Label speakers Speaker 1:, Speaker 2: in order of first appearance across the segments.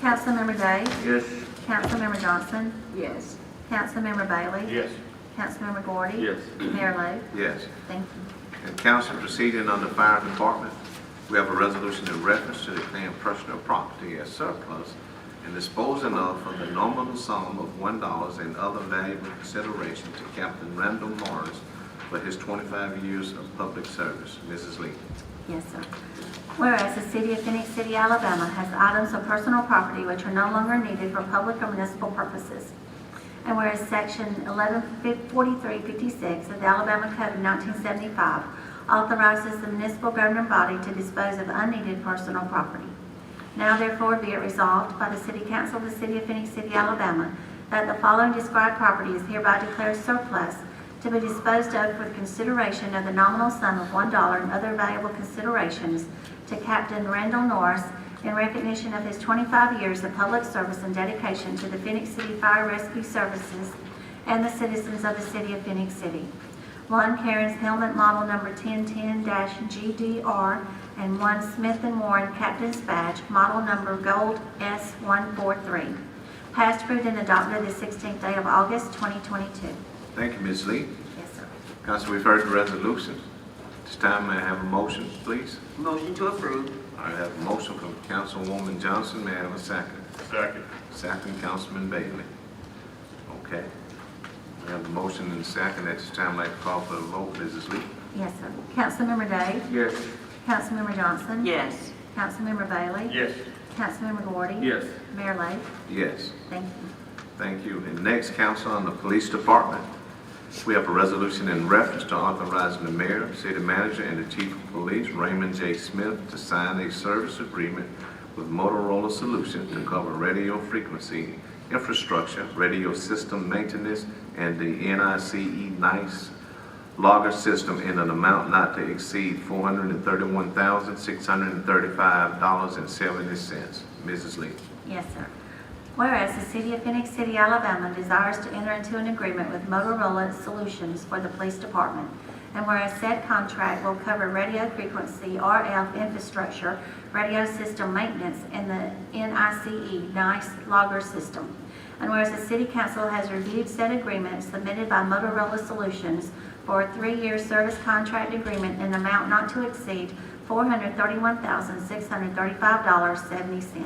Speaker 1: Councilmember Day,
Speaker 2: Yes.
Speaker 1: Councilmember Johnson,
Speaker 3: Yes.
Speaker 1: Councilmember Bailey.
Speaker 2: Yes.
Speaker 1: Councilmember Gordy.
Speaker 2: Yes.
Speaker 1: Mayor Lo.
Speaker 4: Yes.
Speaker 1: Thank you.
Speaker 4: And council proceeding on the fire department, we have a resolution in reference to declaring personal property as surplus and disposing of for the nominal sum of one dollars and other valuable consideration to Captain Randall Morris for his twenty-five years of public service. Mrs. Lee.
Speaker 1: Yes, sir. Whereas the city of Phoenix City, Alabama has items of personal property which are no longer needed for public or municipal purposes. And whereas section 114356 of the Alabama Code of 1975 authorizes the municipal governing body to dispose of unneeded personal property. Now therefore be it resolved by the City Council of the City of Phoenix City, Alabama, that the following described property is hereby declared surplus to be disposed of for the consideration of the nominal sum of one dollar and other valuable considerations to Captain Randall Norris in recognition of his twenty-five years of public service and dedication to the Phoenix City Fire Rescue Services and the citizens of the City of Phoenix City. One Karen's helmet model number 1010-GDR, and one Smith & Warren Captain's Badge, model number Gold S143. Passed, approved, and adopted the 16th day of August, 2022.
Speaker 4: Thank you, Ms. Lee.
Speaker 1: Yes, sir.
Speaker 4: Council, we've heard the resolution. This time, may I have a motion, please?
Speaker 3: Motion to approve.
Speaker 4: I have a motion from Councilwoman Johnson. May I have a second?
Speaker 2: Second.
Speaker 4: Second, Councilman Bailey. Okay. We have a motion and a second. At this time, I'd like to call for a vote. Mrs. Lee?
Speaker 1: Yes, sir. Councilmember Day?
Speaker 2: Yes.
Speaker 1: Councilmember Johnson?
Speaker 3: Yes.
Speaker 1: Councilmember Bailey?
Speaker 2: Yes.
Speaker 1: Councilmember Gordy?
Speaker 2: Yes.
Speaker 1: Mayor Lo?
Speaker 4: Yes.
Speaker 1: Thank you.
Speaker 4: Thank you. And next, council on the police department. We have a resolution in reference to authorizing the mayor, city manager, and the chief of police, Raymond J. Smith, to sign a service agreement with Motorola Solutions to cover radio frequency infrastructure, radio system maintenance, and the NICE E NICE logger system in an amount not to exceed four hundred and thirty-one thousand, six hundred and thirty-five dollars and seventy cents. Mrs. Lee.
Speaker 1: Yes, sir. Whereas the City of Phoenix City, Alabama desires to enter into an agreement with Motorola Solutions for the Police Department, and whereas said contract will cover radio frequency RF infrastructure, radio system maintenance, and the NICE E, NICE logger system. And whereas the City Council has reviewed said agreement submitted by Motorola Solutions for a three-year service contract agreement in amount not to exceed $431,635.70.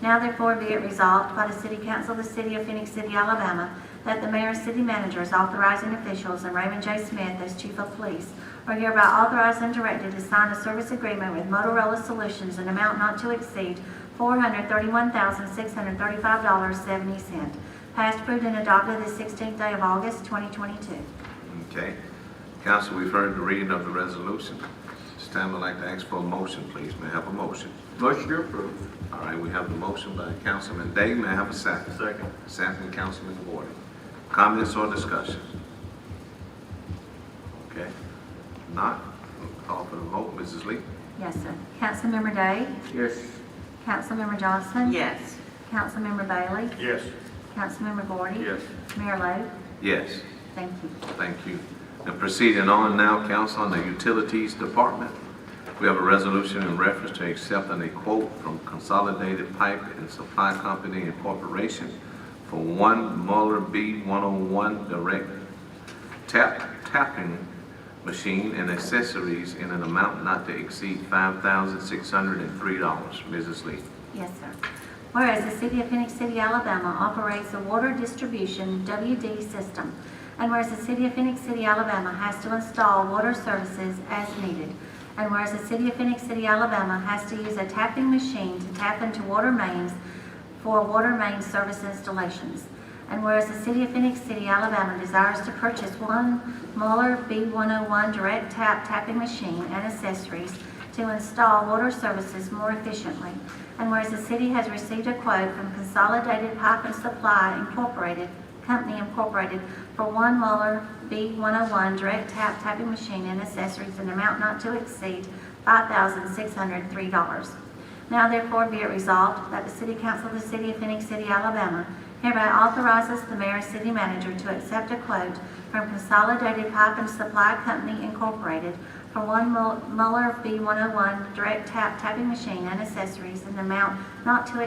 Speaker 1: Now therefore be it resolved by the City Council of the City of Phoenix City, Alabama, that the mayor, city managers, authorizing officials, and Raymond J. Smith as chief of police are hereby authorized and directed to sign a service agreement with Motorola Solutions in amount not to exceed $431,635.70, passed, approved, and adopted the 16th day of August, 2022.
Speaker 4: Okay. Council, we've heard the reading of the resolution. This time I'd like to ask for a motion, please. May I have a motion?
Speaker 2: Motion to approve.
Speaker 4: All right, we have the motion by Councilman Day. May I have a second?
Speaker 2: Second.
Speaker 4: Second, Councilman Gordon. Comments or discussion? Okay. Not, we'll call for the vote. Mrs. Lee?
Speaker 1: Yes, sir. Councilmember Day?
Speaker 2: Yes.
Speaker 1: Councilmember Johnson?
Speaker 3: Yes.
Speaker 1: Councilmember Bailey?
Speaker 2: Yes.
Speaker 1: Councilmember Gordy?
Speaker 2: Yes.
Speaker 1: Mayor Lo?
Speaker 4: Yes.
Speaker 1: Thank you.
Speaker 4: Thank you. And proceeding on now, council, on the Utilities Department. We have a resolution in reference to accepting a quote from Consolidated Pipe and Supply Company Incorporated for one Mueller B one oh one direct tap, tapping machine and accessories in an amount not to exceed five thousand six hundred and three dollars. Mrs. Lee.
Speaker 1: Yes, sir. Whereas the City of Phoenix City, Alabama operates a water distribution WD system, and whereas the City of Phoenix City, Alabama has to install water services as needed, and whereas the City of Phoenix City, Alabama has to use a tapping machine to tap into water mains for water main service installations, and whereas the City of Phoenix City, Alabama desires to purchase one Mueller B101 direct tap tapping machine and accessories to install water services more efficiently, and whereas the city has received a quote from Consolidated Pipe and Supply Incorporated, Company Incorporated, for one Mueller B101 direct tap tapping machine and accessories in amount not to exceed $5,603. Now therefore be it resolved that the City Council of the City of Phoenix City, Alabama hereby authorizes the mayor and city manager to accept a quote from Consolidated Pipe and Supply Company Incorporated for one oh Mul- Mueller B101 direct tap tapping machine and accessories in the amount not to